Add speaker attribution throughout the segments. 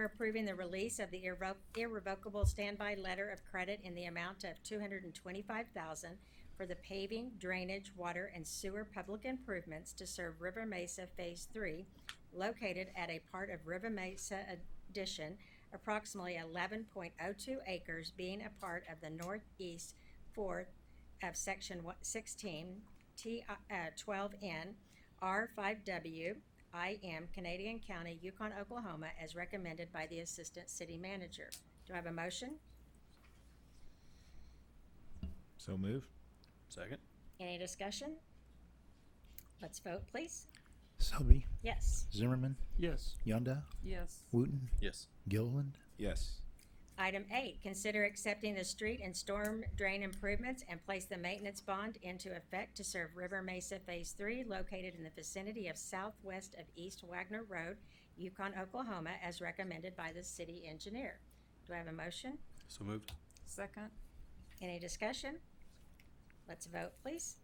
Speaker 1: We're approving the release of the irrevo- irrevocable standby letter of credit in the amount of two hundred and twenty-five thousand for the paving, drainage, water, and sewer public improvements to serve River Mesa Phase Three, located at a part of River Mesa addition, approximately eleven point oh two acres, being a part of the northeast fourth of section one- sixteen, T, uh, twelve N, R five W, I am Canadian County, Yukon, Oklahoma, as recommended by the Assistant City Manager. Do I have a motion?
Speaker 2: So move.
Speaker 3: Second?
Speaker 1: Any discussion? Let's vote, please.
Speaker 4: Selby,
Speaker 1: Yes.
Speaker 4: Zimmerman,
Speaker 3: Yes.
Speaker 4: Yonda,
Speaker 5: Yes.
Speaker 4: Wooten,
Speaker 3: Yes.
Speaker 4: Gilliland,
Speaker 2: Yes.
Speaker 1: Item eight, consider accepting the street and storm drain improvements and place the maintenance bond into effect to serve River Mesa Phase Three located in the vicinity of southwest of East Wagner Road, Yukon, Oklahoma, as recommended by the city engineer. Do I have a motion?
Speaker 3: So moved?
Speaker 5: Second.
Speaker 1: Any discussion? Let's vote, please.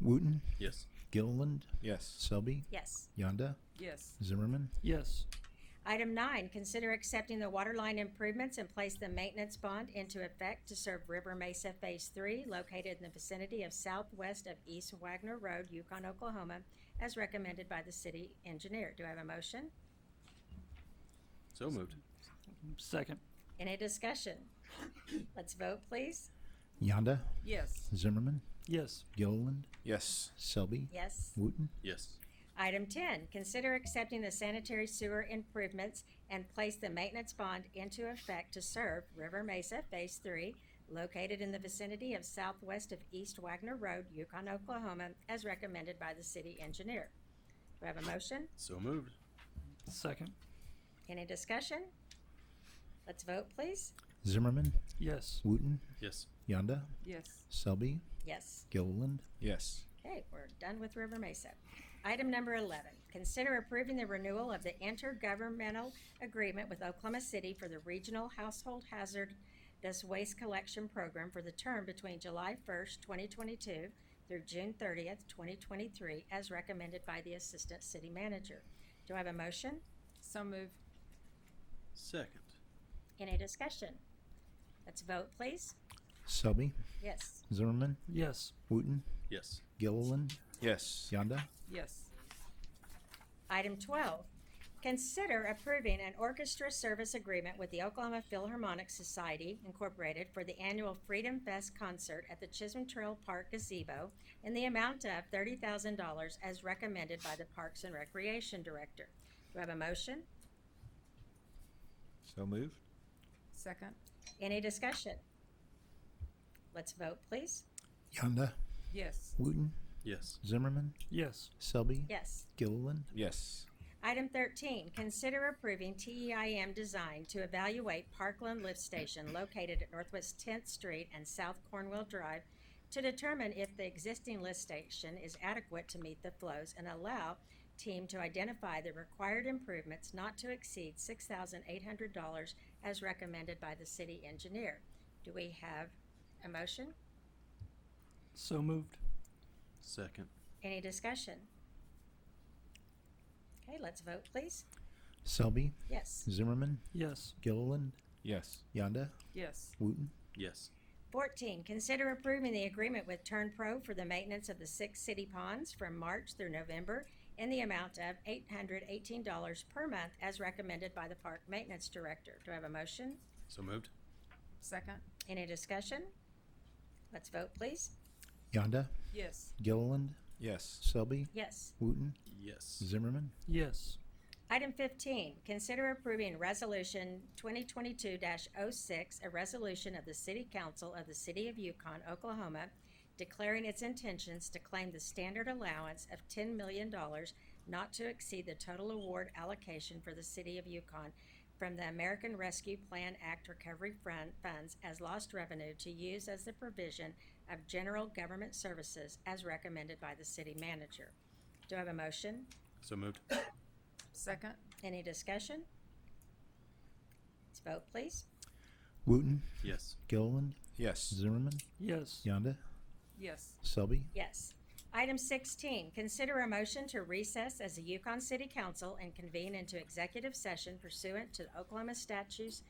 Speaker 4: Wooten,
Speaker 3: Yes.
Speaker 4: Gilliland,
Speaker 2: Yes.
Speaker 4: Selby,
Speaker 1: Yes.
Speaker 4: Yonda,
Speaker 5: Yes.
Speaker 4: Zimmerman,
Speaker 3: Yes.
Speaker 1: Item nine, consider accepting the water line improvements and place the maintenance bond into effect to serve River Mesa Phase Three located in the vicinity of southwest of East Wagner Road, Yukon, Oklahoma, as recommended by the city engineer. Do I have a motion?
Speaker 3: So moved?
Speaker 6: Second.
Speaker 1: Any discussion? Let's vote, please.
Speaker 4: Yonda,
Speaker 5: Yes.
Speaker 4: Zimmerman,
Speaker 6: Yes.
Speaker 4: Gilliland,
Speaker 2: Yes.
Speaker 4: Selby,
Speaker 1: Yes.
Speaker 4: Wooten,
Speaker 3: Yes.
Speaker 1: Item ten, consider accepting the sanitary sewer improvements and place the maintenance bond into effect to serve River Mesa Phase Three, located in the vicinity of southwest of East Wagner Road, Yukon, Oklahoma, as recommended by the city engineer. Do I have a motion?
Speaker 3: So moved?
Speaker 6: Second.
Speaker 1: Any discussion? Let's vote, please.
Speaker 4: Zimmerman,
Speaker 6: Yes.
Speaker 4: Wooten,
Speaker 3: Yes.
Speaker 4: Yonda,
Speaker 5: Yes.
Speaker 4: Selby,
Speaker 1: Yes.
Speaker 4: Gilliland,
Speaker 2: Yes.
Speaker 1: Okay, we're done with River Mesa. Item number eleven, consider approving the renewal of the intergovernmental agreement with Oklahoma City for the Regional Household Hazardous Waste Collection Program for the term between July first, twenty twenty-two through June thirtieth, twenty twenty-three, as recommended by the Assistant City Manager. Do I have a motion?
Speaker 5: So move.
Speaker 3: Second?
Speaker 1: Any discussion? Let's vote, please.
Speaker 4: Selby,
Speaker 1: Yes.
Speaker 4: Zimmerman,
Speaker 6: Yes.
Speaker 4: Wooten,
Speaker 3: Yes.
Speaker 4: Gilliland,
Speaker 2: Yes.
Speaker 4: Yonda,
Speaker 5: Yes.
Speaker 1: Item twelve, consider approving an orchestra service agreement with the Oklahoma Philharmonic Society Incorporated for the annual Freedom Fest concert at the Chisholm Trail Park gazebo in the amount of thirty thousand dollars as recommended by the Parks and Recreation Director. Do I have a motion?
Speaker 2: So moved.
Speaker 5: Second.
Speaker 1: Any discussion? Let's vote, please.
Speaker 4: Yonda,
Speaker 5: Yes.
Speaker 4: Wooten,
Speaker 3: Yes.
Speaker 4: Zimmerman,
Speaker 6: Yes.
Speaker 4: Selby,
Speaker 1: Yes.
Speaker 4: Gilliland,
Speaker 2: Yes.
Speaker 1: Item thirteen, consider approving TEIM design to evaluate Parkland Lift Station located at Northwest Tenth Street and South Cornwall Drive to determine if the existing lift station is adequate to meet the flows and allow team to identify the required improvements not to exceed six thousand eight hundred dollars as recommended by the city engineer. Do we have a motion?
Speaker 6: So moved.
Speaker 3: Second?
Speaker 1: Any discussion? Okay, let's vote, please.
Speaker 4: Selby,
Speaker 1: Yes.
Speaker 4: Zimmerman,
Speaker 6: Yes.
Speaker 4: Gilliland,
Speaker 2: Yes.
Speaker 4: Yonda,
Speaker 5: Yes.
Speaker 4: Wooten,
Speaker 3: Yes.
Speaker 1: Fourteen, consider approving the agreement with Turn Pro for the maintenance of the six city ponds from March through November in the amount of eight hundred eighteen dollars per month as recommended by the Park Maintenance Director. Do I have a motion?
Speaker 3: So moved?
Speaker 5: Second.
Speaker 1: Any discussion? Let's vote, please.
Speaker 4: Yonda,
Speaker 5: Yes.
Speaker 4: Gilliland,
Speaker 2: Yes.
Speaker 4: Selby,
Speaker 1: Yes.
Speaker 4: Wooten,
Speaker 3: Yes.
Speaker 4: Zimmerman,
Speaker 6: Yes.
Speaker 1: Item fifteen, consider approving resolution twenty twenty-two 6 a resolution of the City Council of the City of Yukon, Oklahoma, declaring its intentions to claim the standard allowance of ten million dollars not to exceed the total award allocation for the City of Yukon from the American Rescue Plan Act Recovery Fund funds as lost revenue to use as the provision of general government services as recommended by the city manager. Do I have a motion?
Speaker 3: So moved?
Speaker 5: Second.
Speaker 1: Any discussion? Let's vote, please.
Speaker 4: Wooten,
Speaker 3: Yes.
Speaker 4: Gilliland,
Speaker 2: Yes.
Speaker 4: Zimmerman,
Speaker 6: Yes.
Speaker 4: Yonda,
Speaker 5: Yes.
Speaker 4: Selby,
Speaker 1: Yes. Item sixteen, consider a motion to recess as the Yukon City Council and convene into executive session pursuant to Oklahoma statutes